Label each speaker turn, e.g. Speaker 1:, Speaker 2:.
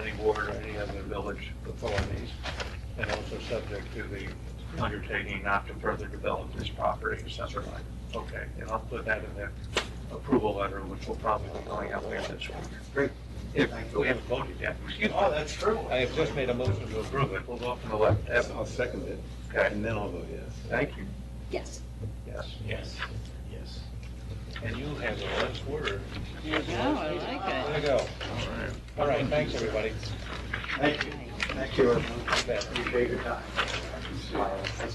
Speaker 1: board or any of the village authorities, and also subject to the undertaking not to further develop this property, et cetera. Okay, and I'll put that in the approval letter, which will probably be going out later this week.
Speaker 2: Great.
Speaker 1: If we haven't voted yet, excuse me.
Speaker 2: Oh, that's true.
Speaker 1: I have just made a motion to approve it. We'll go up to the left. Evan,
Speaker 3: I'll second it,
Speaker 1: Okay,
Speaker 3: and then I'll vote yes.
Speaker 1: thank you.
Speaker 4: Yes.
Speaker 1: Yes.
Speaker 2: Yes. Yes.
Speaker 1: And you have the last word.
Speaker 4: There you go, I like
Speaker 1: There
Speaker 4: it.
Speaker 1: you go. All right, thanks, everybody.
Speaker 2: Thank you. Thank you, everyone.
Speaker 1: You bet.
Speaker 2: Appreciate your time.